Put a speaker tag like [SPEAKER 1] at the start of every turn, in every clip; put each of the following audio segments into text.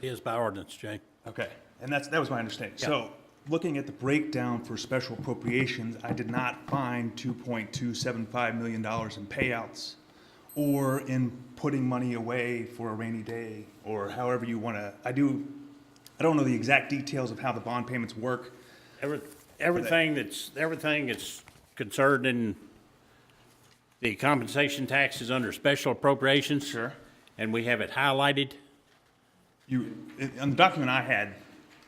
[SPEAKER 1] Is by ordinance, Jay.
[SPEAKER 2] Okay, and that's, that was my understanding. So, looking at the breakdown for special appropriations, I did not find two point two seven five million dollars in payouts or in putting money away for a rainy day, or however you wanna, I do, I don't know the exact details of how the bond payments work.
[SPEAKER 1] Every, everything that's, everything that's concerned in the compensation tax is under special appropriations. Sure. And we have it highlighted.
[SPEAKER 2] You, on the document I had,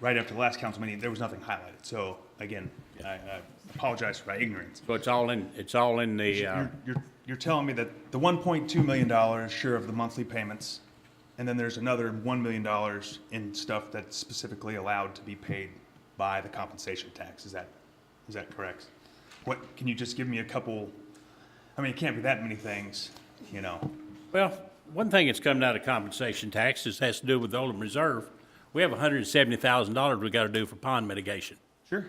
[SPEAKER 2] right after the last council meeting, there was nothing highlighted, so, again, I, I apologize for my ignorance.
[SPEAKER 1] So it's all in, it's all in the, uh,
[SPEAKER 2] You're, you're, you're telling me that the one point two million dollars sure of the monthly payments, and then there's another one million dollars in stuff that's specifically allowed to be paid by the compensation tax, is that, is that correct? What, can you just give me a couple, I mean, it can't be that many things, you know?
[SPEAKER 1] well, one thing that's coming out of compensation taxes has to do with the Oldham Reserve. We have hundred and seventy thousand dollars we gotta do for pond mitigation.
[SPEAKER 2] Sure.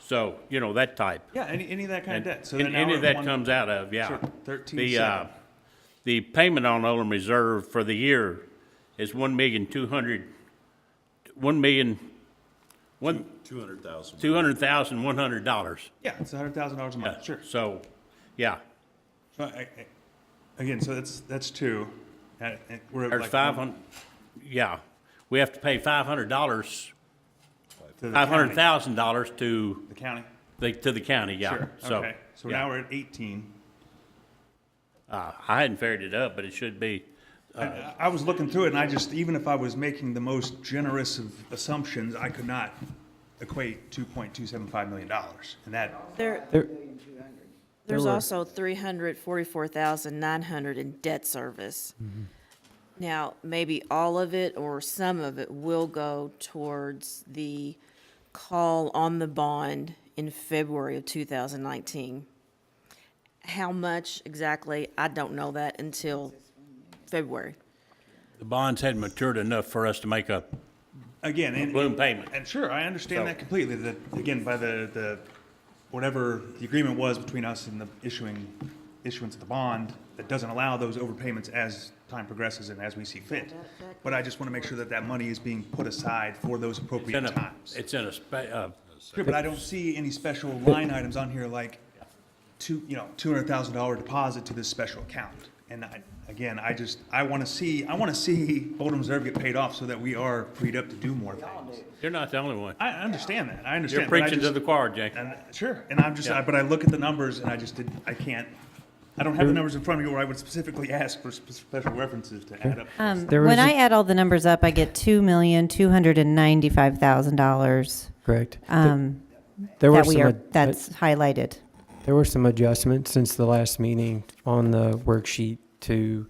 [SPEAKER 1] So, you know, that type.
[SPEAKER 2] Yeah, any, any of that kind of debt, so then
[SPEAKER 1] And
[SPEAKER 2] now
[SPEAKER 1] any
[SPEAKER 2] we're
[SPEAKER 1] of
[SPEAKER 2] at
[SPEAKER 1] that
[SPEAKER 2] one-
[SPEAKER 1] comes out of, yeah.
[SPEAKER 2] Sure, 13,
[SPEAKER 1] The, uh,
[SPEAKER 2] seven.
[SPEAKER 1] the payment on Olam Reserve for the year is one million two hundred, one million, one,
[SPEAKER 3] Two hundred thousand.
[SPEAKER 1] two hundred thousand, one hundred dollars.
[SPEAKER 2] Yeah, it's a hundred thousand dollars a month, sure.
[SPEAKER 1] So, yeah,
[SPEAKER 2] So I- I- Again, so that's, that's two, Uh, and we're at
[SPEAKER 1] there's
[SPEAKER 2] like
[SPEAKER 1] five
[SPEAKER 2] one-
[SPEAKER 1] hundred. yeah. We have to pay five hundred dollars,
[SPEAKER 2] to the
[SPEAKER 1] five hundred
[SPEAKER 2] county.
[SPEAKER 1] thousand dollars to
[SPEAKER 2] The county?
[SPEAKER 1] the, to the county, yeah.
[SPEAKER 2] Sure,
[SPEAKER 1] So,
[SPEAKER 2] okay. So
[SPEAKER 1] yeah.
[SPEAKER 2] now we're at 18.
[SPEAKER 1] Uh, I hadn't figured it up, but it should be, Uh,
[SPEAKER 2] I I was looking through it, and I just, even if I was making the most generous of assumptions, I could not equate $2.275 million. And that,
[SPEAKER 4] There,
[SPEAKER 5] There-
[SPEAKER 4] there's
[SPEAKER 5] were-
[SPEAKER 4] also three hundred forty-four thousand nine hundred in debt service.
[SPEAKER 5] Mm-hmm.
[SPEAKER 4] Now, maybe all of it or some of it will go towards the call on the bond in February of two thousand nineteen. How much exactly, I don't know that until February.
[SPEAKER 1] the bonds hadn't matured enough for us to make a
[SPEAKER 2] again, and,
[SPEAKER 1] balloon payment.
[SPEAKER 2] and sure, I understand that
[SPEAKER 1] So-
[SPEAKER 2] completely, that, again, by the, the, whatever the agreement was between us and the issuing, issuance of the bond, that doesn't allow those overpayments as time progresses and as we see fit. But I just want to make sure that that money is being put aside for those
[SPEAKER 1] It's in
[SPEAKER 2] appropriate
[SPEAKER 1] a,
[SPEAKER 2] times.
[SPEAKER 1] it's in a, spa- uh,
[SPEAKER 2] Sure, but I don't see any special line items on here like two, you know, two hundred thousand dollar deposit to this special account. And I, again, I just, I want to see, I want to see Oldham Reserve get paid off so that we are freed up to do more things.
[SPEAKER 1] you're not the only one.
[SPEAKER 2] I, I understand that, I understand.
[SPEAKER 1] You're
[SPEAKER 2] but I
[SPEAKER 1] preaching to
[SPEAKER 2] just-
[SPEAKER 1] the choir, Jay.
[SPEAKER 2] And, sure, and I'm just, I- but I look at the numbers and I just did, I can't, I don't have the numbers in front of me where I would specifically ask for spe- special references to add up.
[SPEAKER 5] There was
[SPEAKER 6] Um, When
[SPEAKER 5] a-
[SPEAKER 6] I add all the numbers up, I get two million two hundred and ninety-five thousand dollars
[SPEAKER 5] Correct. Th-
[SPEAKER 6] um,
[SPEAKER 5] There were
[SPEAKER 6] that we
[SPEAKER 5] some,
[SPEAKER 6] are.
[SPEAKER 5] ad- uh,
[SPEAKER 6] That's highlighted.
[SPEAKER 5] there were some adjustments since the last meeting on the worksheet to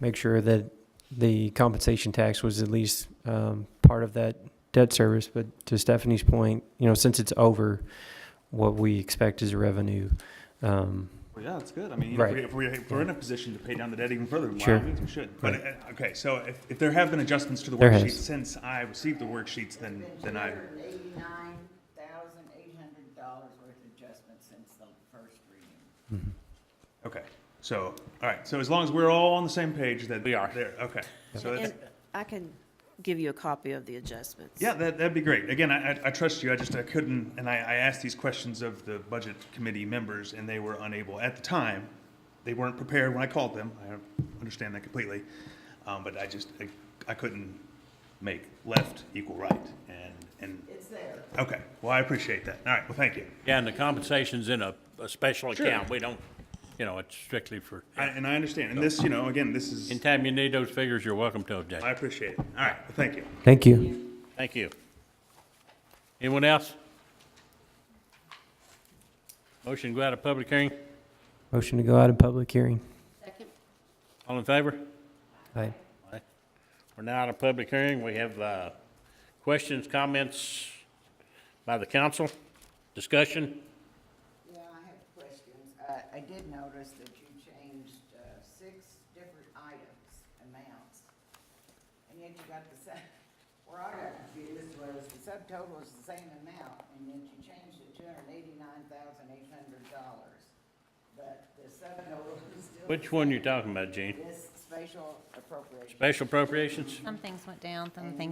[SPEAKER 5] make sure that the compensation tax was at least um, part of that debt service. But to Stephanie's point, you know, since it's over what we expect is revenue, um,
[SPEAKER 2] Well, yeah, that's good. I mean, you know,
[SPEAKER 5] Right.
[SPEAKER 2] if, we, if, we, if we're in a position to pay down the debt even further, why
[SPEAKER 5] Sure.
[SPEAKER 2] we should. But uh, okay, so if, if there have been adjustments to the
[SPEAKER 5] There
[SPEAKER 2] worksheet
[SPEAKER 5] has.
[SPEAKER 2] since I received the worksheets, then then I
[SPEAKER 7] Eighty-nine thousand eight hundred dollars worth of adjustments since the first reading.
[SPEAKER 2] okay. So all right. So as long as we're all on the same page, that
[SPEAKER 1] We are.
[SPEAKER 2] there. Okay. So that's,
[SPEAKER 4] And I can give you a copy of the adjustments.
[SPEAKER 2] yeah, that that'd be great. Again, I, I I trust you. I just I couldn't, and I, I asked these questions of the budget committee members, and they were unable at the time. They weren't prepared when I called them. I understand that completely, um, but I just I, I couldn't make left equal right, and and
[SPEAKER 7] It's there.
[SPEAKER 2] Okay, well, I appreciate that. All right, well, thank you.
[SPEAKER 1] Yeah, and the compensation's in a, a special
[SPEAKER 2] Sure.
[SPEAKER 1] account. We don't, you know, it's strictly for,
[SPEAKER 2] I- And I understand, and this, you know, again, this is,
[SPEAKER 1] anytime you need those figures, you're welcome to object.
[SPEAKER 2] I appreciate it. All right, well, thank you.
[SPEAKER 5] thank you.
[SPEAKER 1] Thank you. Anyone else? Motion to go out of public hearing?
[SPEAKER 5] Motion to go out in public hearing.
[SPEAKER 1] All in favor?
[SPEAKER 5] Aye.
[SPEAKER 1] We're now out of public hearing. We have, uh, questions, comments by the council, discussion.
[SPEAKER 7] Yeah, I have questions. Uh, I did notice that you changed, uh, six different items, amounts. And yet you got the same, where I got confused was the subtotal is the same amount, and yet you changed it two hundred eighty-nine thousand eight hundred dollars. But the subtotal is still.
[SPEAKER 1] Which one you talking about, Gene?
[SPEAKER 7] This spatial appropriation.
[SPEAKER 1] Special appropriations?
[SPEAKER 8] Some things went down, some things